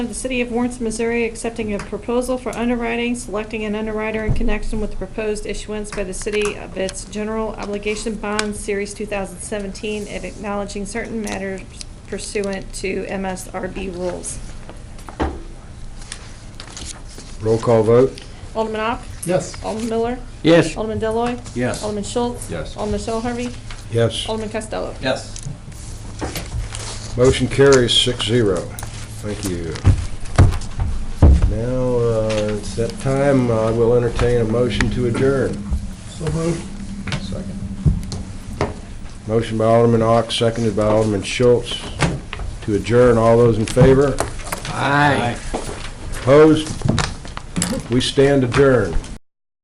of the City of Warrenton, Missouri, accepting a proposal for underwriting, selecting an underwriter in connection with the proposed issuance by the city of its general obligation bond, Series 2017, and acknowledging certain matters pursuant to MSRB rules. Roll call vote? Alderman Ock? Yes. Alderman Miller? Yes. Alderman Deloy, Yes. Alderman Schultz? Yes. Alderman Shell Harvey? Yes. Alderman Costello? Yes. Motion carries six zero. Thank you. Now, uh, it's that time, uh, I will entertain a motion to adjourn. So moved. Second. Motion by Alderman Ock, seconded by Alderman Schultz to adjourn. All those in favor? Aye. Opposed? We stand adjourned.